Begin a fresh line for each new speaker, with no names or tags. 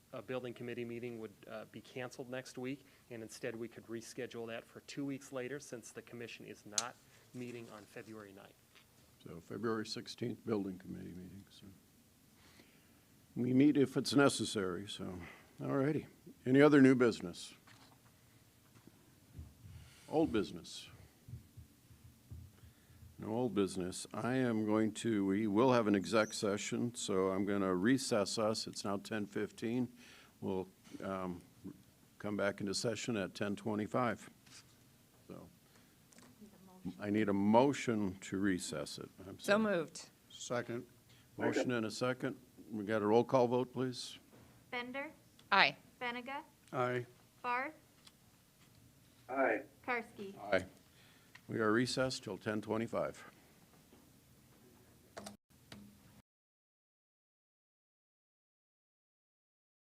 uh, building committee meeting would uh, be canceled next week, and instead we could reschedule that for two weeks later since the commission is not meeting on February 9th.
So February 16th, Building Committee meeting, so. We meet if it's necessary, so, all righty. Any other new business? Old business? No old business. I am going to, we will have an exec session, so I'm going to recess us. It's now 10:15. We'll um, come back into session at 10:25. So I need a motion to recess it. I'm
So
sorry.
moved.
Second.
Motion and a second. We got a roll call vote, please?
Bender,
Aye.
Benega,
Aye.
Barth,
Aye.
Karski.
Aye. We are recessed till ten twenty-five.